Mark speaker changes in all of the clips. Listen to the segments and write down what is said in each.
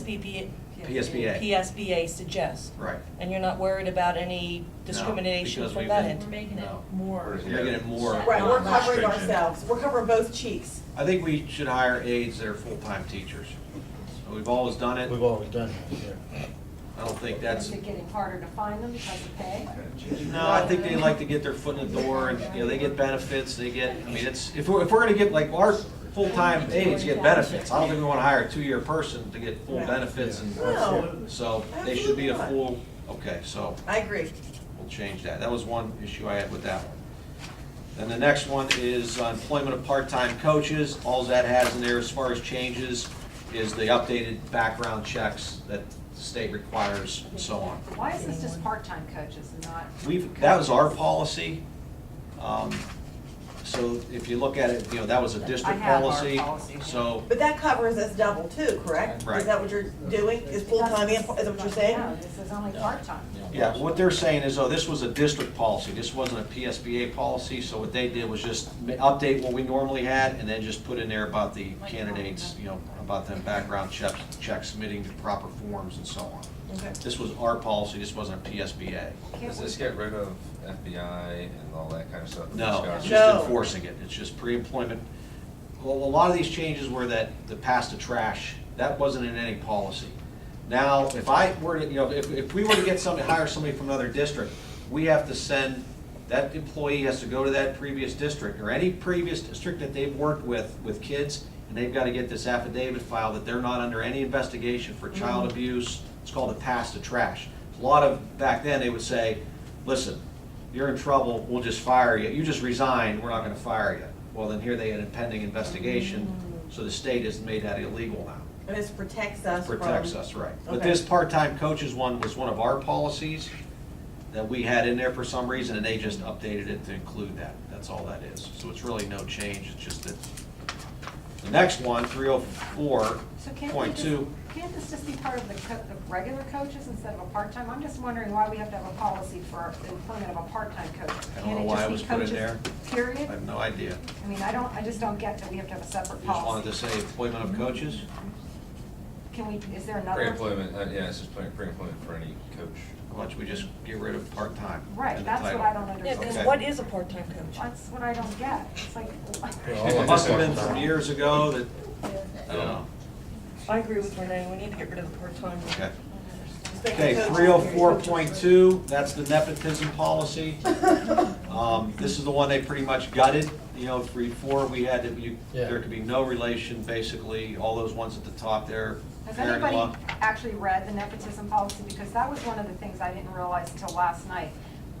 Speaker 1: SBPA.
Speaker 2: PSBA.
Speaker 1: PSBA suggests.
Speaker 2: Right.
Speaker 1: And you're not worried about any discrimination
Speaker 2: because
Speaker 1: from
Speaker 2: we've
Speaker 1: that
Speaker 2: been-
Speaker 1: end?
Speaker 3: We're making it
Speaker 2: No.
Speaker 3: more.
Speaker 2: We're making it more.
Speaker 4: Right, we're
Speaker 2: not
Speaker 4: covering
Speaker 2: stringent.
Speaker 4: ourselves, we're covering both cheeks.
Speaker 2: I think we should hire aides that are full-time teachers. We've always done it.
Speaker 5: We've always done that, yeah.
Speaker 2: I don't think
Speaker 6: Is
Speaker 2: that's,
Speaker 6: it getting harder to find them because of pay?
Speaker 2: no, I think they like to get their foot in the door and, you know, they get benefits, they get, I mean, it's, if we're, if we're gonna get, like, our full-time aides get benefits. I don't think we wanna hire a two-year person to get full
Speaker 4: Right.
Speaker 2: benefits and,
Speaker 4: No.
Speaker 2: so they should be a
Speaker 4: Absolutely
Speaker 2: full, okay, so.
Speaker 4: I agree.
Speaker 2: We'll change that. That was one issue I had with that one. Then the next one is employment of part-time coaches. All that has in there as far as changes is the updated background checks that the state requires and so on.
Speaker 6: Why is this just part-time coaches and not?
Speaker 2: We've, that was our policy. Um, So if you look at it, you know, that was a district
Speaker 6: I have our
Speaker 2: policy.
Speaker 6: policy.
Speaker 2: So,
Speaker 4: But that covers us double too, correct?
Speaker 2: Right.
Speaker 4: Is that what you're doing, is full-time, and- is that what you're saying?
Speaker 6: No, this is only part-time.
Speaker 2: yeah, what they're saying is, oh, this was a district policy. This wasn't a PSBA policy. So what they did was just ma- update what we normally had and then just put in there about the candidates, you know, about them background checks, checks submitting the proper forms and so on.
Speaker 4: Okay.
Speaker 2: This was our policy. This wasn't a PSBA.
Speaker 7: Does this get rid of FBI and all that kind of stuff? that we
Speaker 2: No, it's
Speaker 7: discussed?
Speaker 2: just
Speaker 4: No.
Speaker 2: enforcing it, it's just pre-employment. Well, a lot of these changes were that, the pass to trash, that wasn't in any policy. Now, if I were to, you know, if, if we were to get somebody, hire somebody from another district, we have to send, that employee has to go to that previous district, or any previous district that they've worked with, with kids, and they've gotta get this affidavit filed that they're not under any investigation for child abuse, it's called a pass to trash. A lot of, back then, they would say, listen, you're in trouble, we'll just fire you. You just resigned, we're not gonna fire you. Well, then here they had a pending investigation,
Speaker 6: Mm-hmm.
Speaker 2: so the state has made that illegal now.
Speaker 4: And this protects us from.
Speaker 2: Protects us, right. But
Speaker 4: Okay.
Speaker 2: this part-time coaches one was one of our policies that we had in there for some reason, and they just updated it to include that. That's all that is. So it's really no change, it's just that. The next one, three oh four
Speaker 6: So can't we
Speaker 2: point
Speaker 6: just,
Speaker 2: two,
Speaker 6: can't this just be part of the co- the regular coaches instead of a part-time? I'm just wondering why we have to have a policy for employment of a part-time coach.
Speaker 2: I don't
Speaker 6: Can't
Speaker 2: know
Speaker 6: it
Speaker 2: why
Speaker 6: just
Speaker 2: it
Speaker 6: be
Speaker 2: was put in
Speaker 6: coaches,
Speaker 2: there. I
Speaker 6: Period?
Speaker 2: have no idea.
Speaker 6: I mean, I don't, I just don't get that we have to have a separate
Speaker 2: You Just wanted to
Speaker 6: policy.
Speaker 2: say employment of coaches?
Speaker 6: Mm-hmm. Can we, is there another?
Speaker 7: Pre-employment, uh, yeah, it's just pre- pre-employment for any coach.
Speaker 2: Why don't we just get rid of part-time? in
Speaker 6: Right,
Speaker 2: the
Speaker 6: that's what
Speaker 2: title?
Speaker 6: I don't
Speaker 1: Yeah, because
Speaker 2: Okay.
Speaker 6: understand.
Speaker 1: what is a part-time coach?
Speaker 6: That's what I don't get. It's like,
Speaker 2: It must have been from years ago that, I don't know.
Speaker 1: I agree with Renee, we need to get rid of the part-time.
Speaker 2: Okay.
Speaker 4: Just make
Speaker 2: Okay,
Speaker 4: the coaches-
Speaker 2: three oh four point two, that's the nepotism policy. Um, this is the one they pretty much gutted, you know, three, four, we had, that you,
Speaker 5: Yeah.
Speaker 2: there could be no relation, basically, all those ones at the top there.
Speaker 6: Has
Speaker 2: parent-in-law.
Speaker 6: anybody actually read the nepotism policy? Because that was one of the things I didn't realize until last night.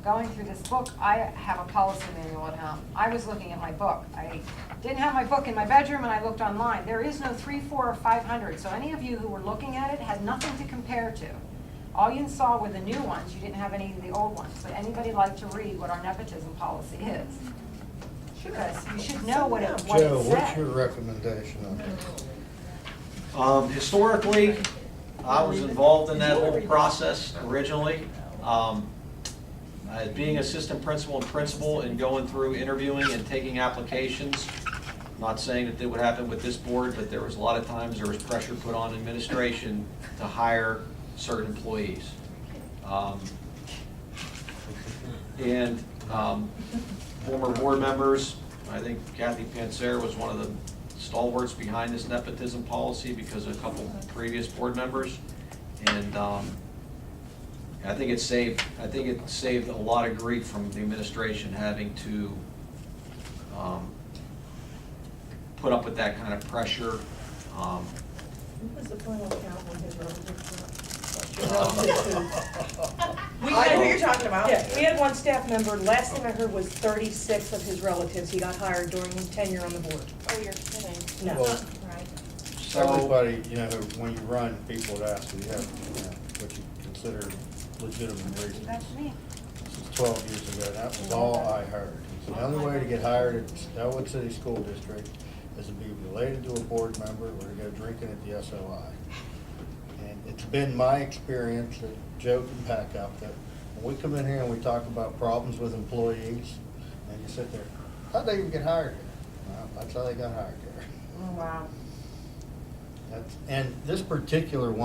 Speaker 6: Going through this book, I have a policy manual at home. I was looking at my book. I didn't have my book in my bedroom and I looked online. There is no three, four, or five hundred, so any of you who were looking at it had nothing to compare to. All you saw were the new ones, you didn't have any of the old ones. Would anybody like to read what our nepotism policy is? Because you should know what it, what it
Speaker 5: Joe, what's
Speaker 6: said.
Speaker 5: your recommendation on that?
Speaker 2: Um, historically, I was involved in that whole process originally. Um, uh, Being assistant principal and principal and going through interviewing and taking applications. Not saying that that would happen with this board, but there was a lot of times there was pressure put on administration to hire certain employees. Um, And um, former board members, I think Kathy Panzer was one of the stalwarts behind this nepotism policy because of a couple previous board members. And um, I think it saved, I think it saved a lot of grief from the administration having to um, put up with that kind of pressure. Um,
Speaker 4: What was the final count on his relative?
Speaker 2: um,
Speaker 4: We, I know who you're talking about.
Speaker 8: Yeah, we had one staff member, last thing I heard was thirty-six of his relatives he got hired during his tenure on the board.
Speaker 1: Oh, you're kidding.
Speaker 8: No.
Speaker 5: Well,
Speaker 1: Right.
Speaker 2: So,
Speaker 5: Everybody, you know, when you run, people would ask, you have, you know, what you consider legitimate reasons.
Speaker 6: That's me.
Speaker 5: This is twelve years ago, that was all I heard. So The only way to get hired at Elwood City School District is to be related to a board member or to go drinking at the SOI. And it's been my experience that Joe can pack up that when we come in here and we talk about problems with employees, and you sit there, how'd they even get hired here? Well, That's how they got hired here.
Speaker 4: Oh, wow.
Speaker 5: That's, and this particular one.